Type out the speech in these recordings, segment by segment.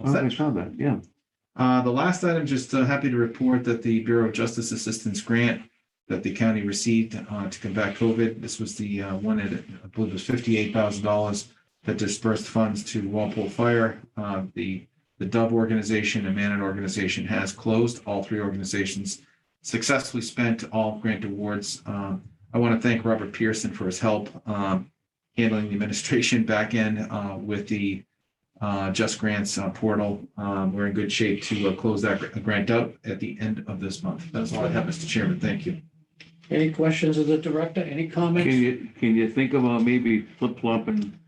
Oh, I Such. saw that, yeah. Uh, the last item, just uh, happy to report that the Bureau of Justice Assistance Grant that the county received uh, to combat COVID, this was the uh, one that I believe was fifty-eight thousand dollars that dispersed funds to Walpole Fire. Uh, The, the Dove organization and Manon organization has closed. All three organizations successfully spent all grant awards. Um, I want to thank Robert Pearson for his help um, handling the administration back end uh, with the uh, Just Grants uh, portal. Um, We're in good shape to uh, close that gr- grant out at the end of this month. That's all I have, Mr. Chairman. Thank you. Any questions of the director? Any Can comments? you, can you think about maybe flip flopping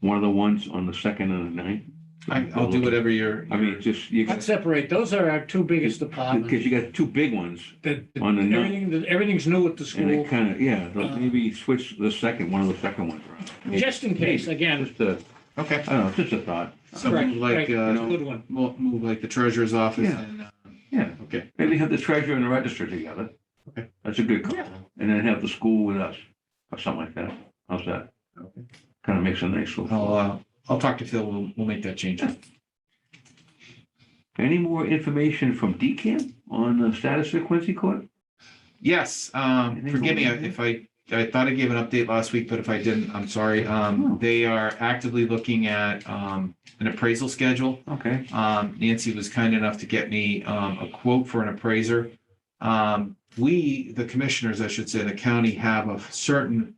one of the ones on the second and the ninth? I- I'll do it every year. I mean, just, you, Let's separate. Those are our two biggest because departments. you got two big ones That, that on the ninth, everything, that everything's new at the and school, it kind of, yeah, like Uh, maybe switch the second, one of the second ones around. Maybe- just in case, again. Just a, Okay. I don't know, just a thought. So Correct, move like, correct. uh, Good one. mo- move like the treasurer's office Yeah. and, uh, Yeah, okay, maybe have the treasurer and the register together. Okay. That's a good call. Yeah. And then have the school with us or something like that. How's that? Okay. Kind of makes a nice little. I'll, uh, I'll talk to Phil. We'll, we'll make that change. Any more information from DCAM on the status of Quincy Court? Yes, um, Anything forgive me going on? if I, I thought I gave an update last week, but if I didn't, I'm sorry. No. Um, they are actively looking at, um, an appraisal schedule. Okay, Um, Nancy was kind enough to get me, um, a quote for an appraiser. Um, we, the commissioners, I should say, the county have a certain,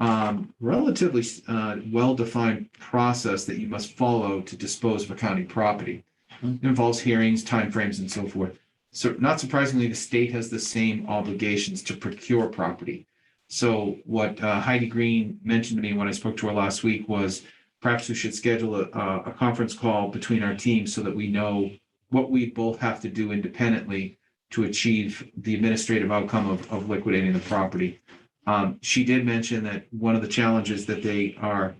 um, relatively, uh, well-defined process that you must follow to dispose of a county property. Hmm. It involves hearings, timeframes, and so forth. So not surprisingly, the state has the same obligations to procure property. So what uh, Heidi Green mentioned to me when I spoke to her last week was perhaps we should schedule a, a a conference call between our teams so that we know what we both have to do independently to achieve the administrative outcome of, of liquidating the property. Um, she did mention that one of the challenges that they are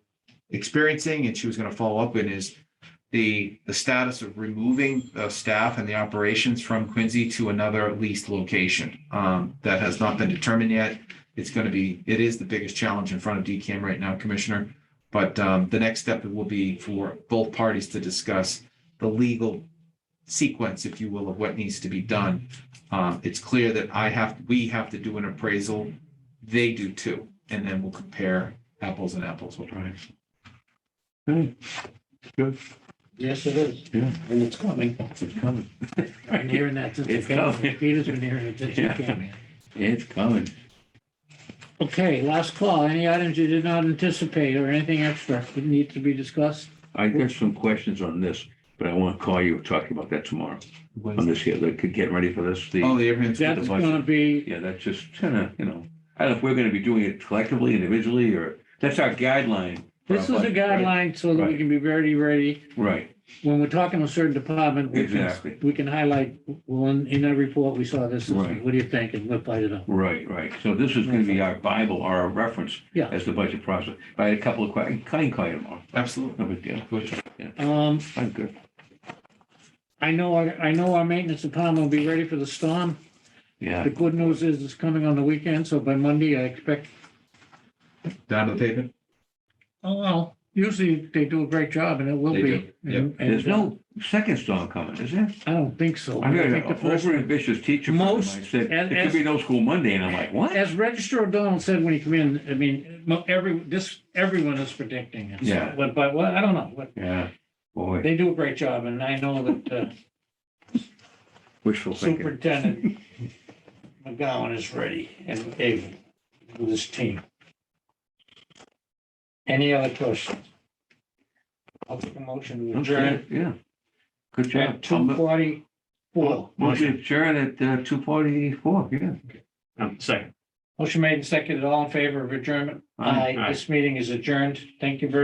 experiencing, and she was going to follow up in, is the, the status of removing the staff and the operations from Quincy to another leased location. Um, that has not been determined yet. It's going to be, it is the biggest challenge in front of DCAM right now, Commissioner. But um, the next step will be for both parties to discuss the legal sequence, if you will, of what needs to be done. Um, It's clear that I have, we have to do an appraisal. They do too. And then we'll compare apples and apples. all right. Good, good, Yes, it is. Yeah. And it's coming. it's coming, I'm hearing that since It's it's coming. coming. Peter's been hearing it since he Yeah. came in. it's coming. Okay, last call. Any items you did not anticipate or anything extra that need to be discussed? I got some questions on this, but I want to call you, talking about that tomorrow, What on is- this here, like, get ready for this, Oh, the, the everyone's. That's budget. gonna be, yeah, that's just kind of, you know, I don't know if we're going to be doing it collectively, individually, or, that's our guideline. for our this is a budget, right? guideline so that we Right. can be very ready. Right, When we're talking to a certain department, we can, Exactly. we can highlight, well, in, in that report, we saw this. this is- Right. What do you think? And we'll fight it out. right, right, so this is going to be our bible, our reference Yeah. as the budget process, I had a couple of questions, I can call you tomorrow, Absolutely. no big deal, Um, I'm good. I know, our- I know our maintenance department will be ready for the storm. Yeah, The good news is it's coming on the weekend, so by Monday, I expect, Down to the pavement. oh, well, usually they do a great job and it will They be. do, yeah. And- and, there's no second storm coming, is there? I don't think so. I heard an think the first- overambitious teacher friend of Most- mine said, as- there could as- be no school Monday, and I'm like, what? As Register O'Donnell said when he came in, I mean, mo- every, this, everyone is predicting it. So, Yeah. But, but, well, I don't know, but Yeah, boy, they do a great job and I know that uh, wishful thinking. Superintendent McGowan is ready and able with his team. Any other questions? I'll take a motion to adjourn Okay, Yeah, good job. at two forty-four. Motion adjourn at uh, 2:44, yeah. Um, second. Motion made and seconded. All in favor of adjournment? Aye. This meeting is adjourned. Thank you very